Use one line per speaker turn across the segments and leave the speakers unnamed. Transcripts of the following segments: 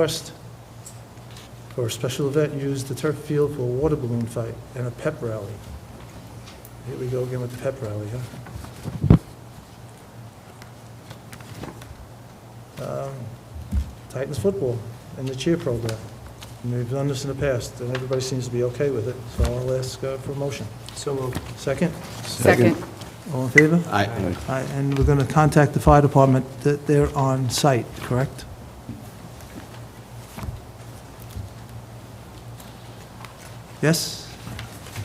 Request for a special event, use the turf field for a water balloon fight and a pep rally. Here we go again with the pep rally, huh? Um, Titans football and the cheer program. And We've done this in the past, and everybody seems to be okay with it, so I'll ask uh, for a motion.
So moved.
Second?
Second.
All in favor?
Aye.
All right, And we're going to contact the fire department that they're on site, correct? Yes?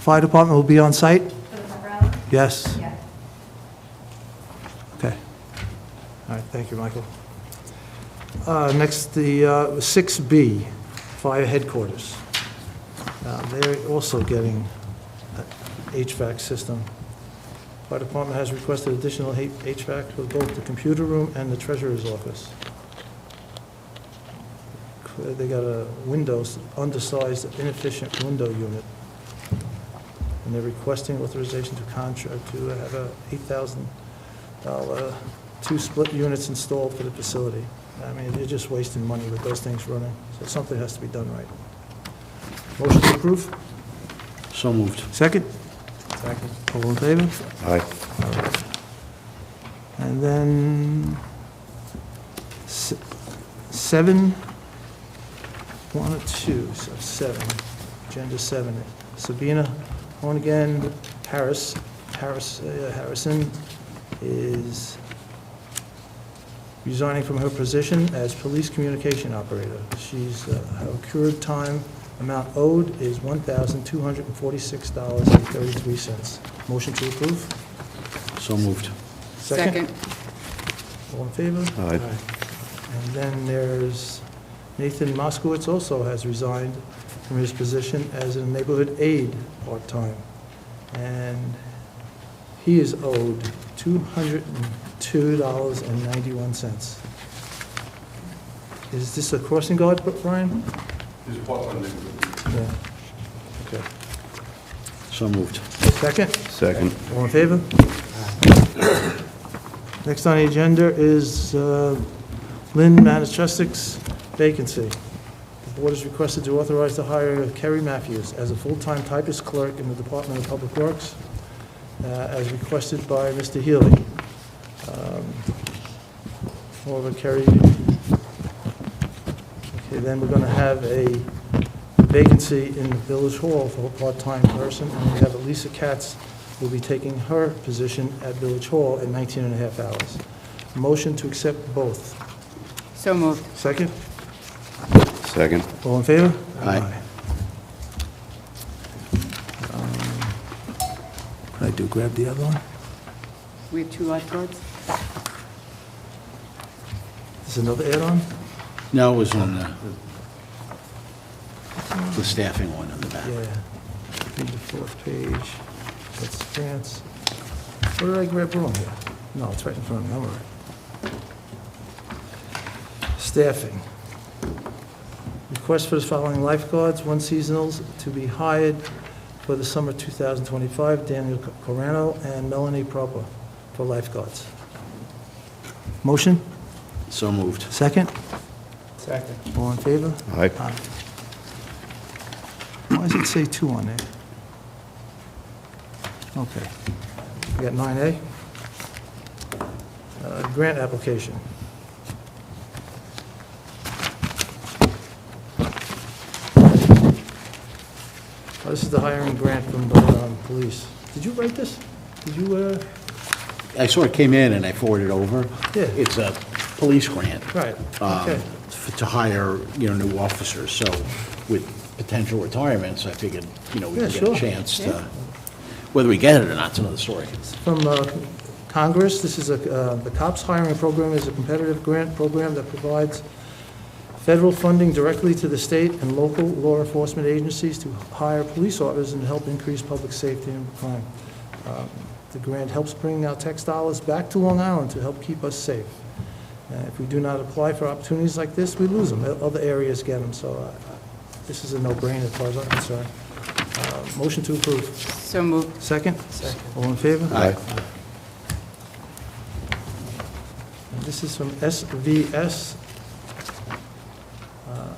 Fire department will be on site?
For the pep rally?
Yes?
Yeah.
Okay. All right, thank you, Michael. Uh, Next, the uh, 6B, Fire Headquarters. Now, They're also getting a HVAC system. Fire Department has requested additional H- HVAC for both the computer room and the treasurer's office. They got a windows, undersized, inefficient window unit, and they're requesting authorization to contract to have a 8,000 uh, two split units installed for the facility. I mean, you're just wasting money with those things running, so something has to be done right. Motion to approve?
So moved.
Second? Second. All in favor?
Aye.
And then s- seven, one or two, so seven, agenda seven. Sabina Hornigan Harris, Harris, uh, Harrison is resigning from her position as police communication operator. She's, uh, her cured time amount owed is $1,246.33. Motion to approve?
So moved.
Second.
All in favor?
Aye.
And then there's Nathan Moskowitz also has resigned from his position as a neighborhood aide part-time. And he is owed $202.91. Is this a crossing guard, Brian?
There's a part-time neighborhood.
Yeah. Okay.
So moved.
Second?
Second.
All in favor? Next on the agenda is uh, Lynn Manischewski's vacancy. The board is requested to authorize the hire of Kerry Matthews as a full-time typist clerk in the Department of Public Works, uh, as requested by Mr. Healy. Um, However, Kerry, okay, then we're going to have a vacancy in the Village Hall for a part-time person, and we have Elisa Katz will be taking her position at Village Hall in 19 and a half hours. Motion to accept both.
So moved.
Second?
Second.
All in favor?
Aye.
Um, Could I do, grab the other one?
We have two lifeguards?
There's another add-on?
No, it was on the, the staffing one on the back.
Yeah. Read the fourth page. That's France. What did I grab wrong here? No, it's right in front of me, all right. Staffing. Request for the following lifeguards, one seasonals, to be hired for the summer 2025, Daniel Corano and Melanie Proper for lifeguards. Motion?
So moved.
Second?
Second.
All in favor?
Aye.
Aye. Why does it say two on there? Okay. We got 9A. Uh, Grant application. Oh, This is the hiring grant from um, police. Did you write this? Did you, uh,
I sort of came in and I forwarded over.
Yeah.
It's a police grant.
right,
um,
okay.
f- To hire, you know, new officers, so with potential retirements, I figured, you know, we
Yeah,
could get
sure.
a chance to, whether we get it or not's another story.
from uh, Congress. This is a, uh, the COPS hiring program is a competitive grant program that provides federal funding directly to the state and local law enforcement agencies to hire police officers and help increase public safety and crime. Um, The grant helps bring our tax dollars back to Long Island to help keep us safe. Uh, If we do not apply for opportunities like this, we lose them. Other areas get them, so uh, this is a no-brainer as far as I'm concerned. Uh, Motion to approve.
So moved.
Second? Second. All in favor?
Aye.
And This is from SVS